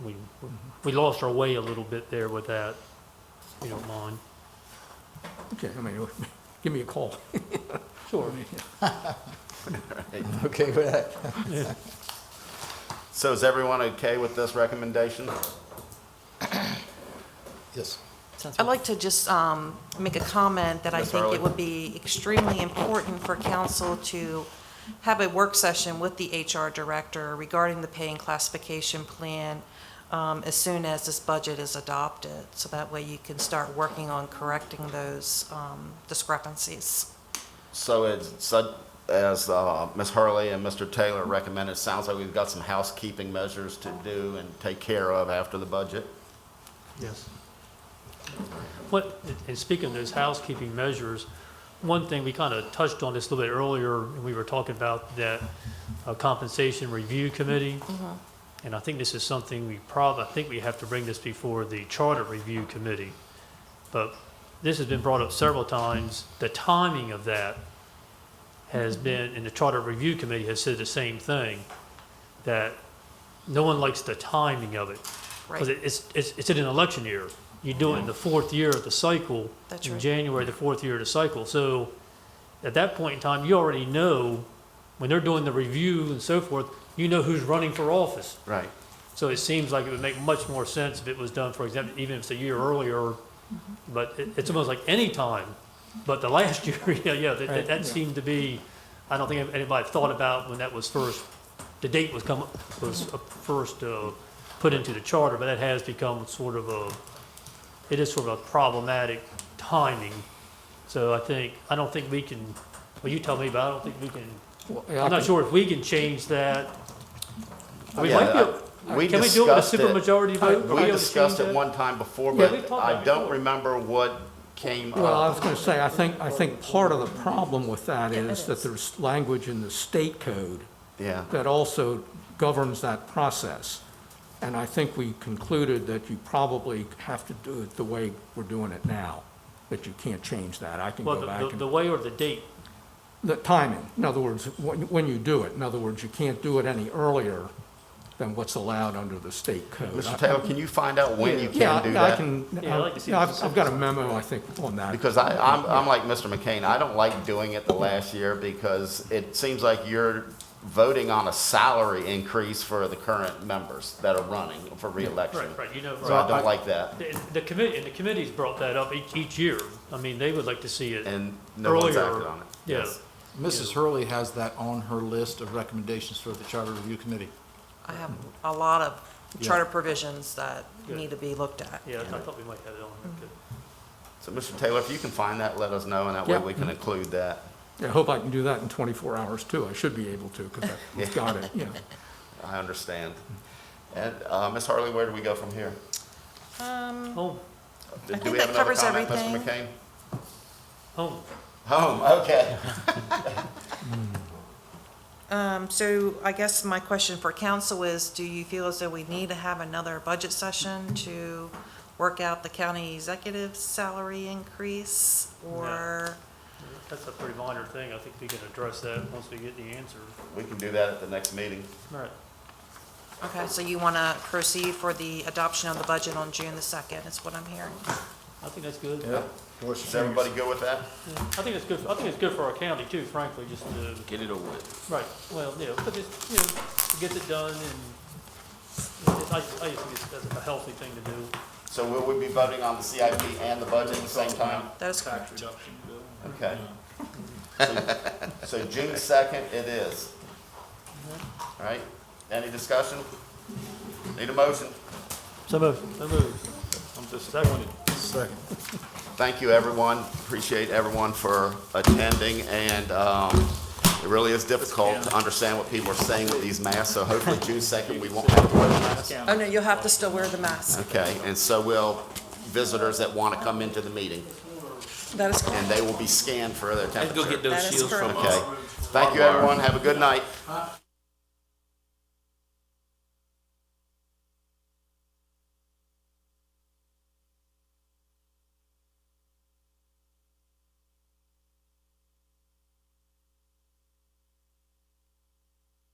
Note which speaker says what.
Speaker 1: we lost our way a little bit there with that, if you don't mind.
Speaker 2: Okay, I mean, give me a call.
Speaker 1: Sure.
Speaker 3: Okay with that?
Speaker 4: So is everyone okay with this recommendation?
Speaker 3: Yes.
Speaker 5: I'd like to just um, make a comment that I
Speaker 4: Ms.
Speaker 5: think
Speaker 4: Harley?
Speaker 5: it would be extremely important for council to have a work session with the HR director regarding the pay and classification plan um, as soon as this budget is adopted. So that way you can start working on correcting those um, discrepancies.
Speaker 4: So it's, so- as uh, Ms. Hurley and Mr. Taylor recommended, it sounds like we've got some housekeeping measures to do and take care of after the budget.
Speaker 3: Yes.
Speaker 1: What, and speaking of those housekeeping measures, one thing, we kind of touched on this a little bit earlier, and we were talking about that uh, compensation review committee. And I think this is something we probably, I think we have to bring this before the charter review committee. But this has been brought up several times. The timing of that has been, and the charter review committee has said the same thing, that no one likes the timing of it. Because
Speaker 5: Right.
Speaker 1: it's, it's, it's in an election year. You do it in the fourth year of the cycle.
Speaker 5: That's
Speaker 1: in
Speaker 5: right.
Speaker 1: January, the fourth year of the cycle. So at that point in time, you already know, when they're doing the review and so forth, you know who's running for office.
Speaker 4: Right.
Speaker 1: So it seems like it would make much more sense if it was done, for example, even if it's a year earlier. But it, it's almost like any time, but the last year, yeah, yeah, that- that, that seemed to be, I don't think anybody thought about when that was first, the date was come, was uh, first, uh, put into the charter, but that has become sort of a, it is sort of a problematic timing. So I think, I don't think we can, well, you tell me, but I don't think we can, I'm not sure if we can change that. We
Speaker 4: Yeah,
Speaker 1: might be, able-
Speaker 4: I- uh, we
Speaker 1: can we do it with a
Speaker 4: discussed it. Uh,
Speaker 1: supermajority vote? Are
Speaker 4: We
Speaker 1: able to
Speaker 4: discussed
Speaker 1: change
Speaker 4: it
Speaker 1: that?
Speaker 4: one time before,
Speaker 1: Yeah, we talked
Speaker 4: but
Speaker 1: about
Speaker 4: I
Speaker 1: it
Speaker 4: don't
Speaker 1: before.
Speaker 4: remember what came
Speaker 2: Well, I
Speaker 4: up.
Speaker 2: was going to say, I think, I think part of the problem with that is that there's language in the state code
Speaker 4: Yeah,
Speaker 2: that also governs that process. And I think we concluded that you probably have to do it the way we're doing it now, that you can't change that. I can
Speaker 1: Well,
Speaker 2: go
Speaker 1: the-
Speaker 2: back
Speaker 1: the, the
Speaker 2: and,
Speaker 1: way or the date,
Speaker 2: the timing, in other words, when, when you do it. In other words, you can't do it any earlier than what's allowed under the state code.
Speaker 4: Mr.
Speaker 2: I-
Speaker 4: Taylor, can you find out when you
Speaker 2: Yeah,
Speaker 4: can do
Speaker 2: I- I
Speaker 4: that?
Speaker 2: can,
Speaker 1: Yeah, I'd like to see
Speaker 2: yeah,
Speaker 1: the
Speaker 2: I've, I've got a memo, I think, on that.
Speaker 4: Because I, I'm, I'm like Mr. McCain, I don't like doing it the last year because it seems like you're voting on a salary increase for the current members that are running for reelection.
Speaker 1: right, right, you know,
Speaker 4: So I
Speaker 1: right.
Speaker 4: don't like that.
Speaker 1: The, the committee, and the committee's brought that up each, each year. I mean, they would like to see it
Speaker 4: And no one's acted
Speaker 1: earlier.
Speaker 4: on it.
Speaker 1: Yeah,
Speaker 3: Mrs. Hurley has that on her list of recommendations for the Charter Review Committee.
Speaker 5: I have a lot of charter provisions that
Speaker 1: Good.
Speaker 5: need to be looked at.
Speaker 1: yeah, I thought we might have it on there. too.
Speaker 4: So, Mr. Taylor, if you can find that, let us know, and that way
Speaker 2: Yeah.
Speaker 4: we can include that.
Speaker 2: I hope I can do that in 24 hours, too. I should be able to, because I've got it, yeah.
Speaker 4: I understand. And, uh, Ms. Harley, where do we go from here?
Speaker 1: Home,
Speaker 4: Do
Speaker 5: think
Speaker 4: we
Speaker 5: that
Speaker 4: have another
Speaker 5: covers
Speaker 4: comment, Mr.
Speaker 5: everything.
Speaker 4: McCain?
Speaker 1: home.
Speaker 4: Home, okay.
Speaker 5: Um, So I guess my question for council is, do you feel as though we need to have another budget session to work out the county executive's salary increase? Or,
Speaker 1: That's a pretty minor thing. I think we can address that once we get the answer.
Speaker 4: We can do that at the next meeting.
Speaker 1: Right.
Speaker 5: okay, so you want to proceed for the adoption of the budget on June the 2nd, is what I'm hearing?
Speaker 1: I think that's good.
Speaker 4: Is everybody good with that?
Speaker 1: I think it's good, I think it's good for our county too, frankly, just to. Get it over with. Right, well, yeah, but it's, you know, it gets it done and it's, I, I just think it's, that's a healthy thing to do.
Speaker 4: So will we be voting on the CIP and the budget at the same time?
Speaker 5: That is correct.
Speaker 4: Okay. So so June second it is. All right, any discussion? Need a motion?
Speaker 1: So moved. So moved. I'm disappointed.
Speaker 4: Thank you, everyone. Appreciate everyone for attending, and um, it really is difficult to understand what people are saying with these masks, so hopefully June second, we won't have to wear masks.
Speaker 5: Oh, no, you'll have to still wear the mask.
Speaker 4: Okay, and so will visitors that want to come into the meeting,
Speaker 5: That is
Speaker 4: and
Speaker 5: correct.
Speaker 4: they will be scanned for their temperature.
Speaker 6: Let's go get
Speaker 5: That
Speaker 6: those
Speaker 5: is
Speaker 6: shields from
Speaker 5: correct.
Speaker 6: us.
Speaker 4: Okay. Thank you, everyone. Have a good night.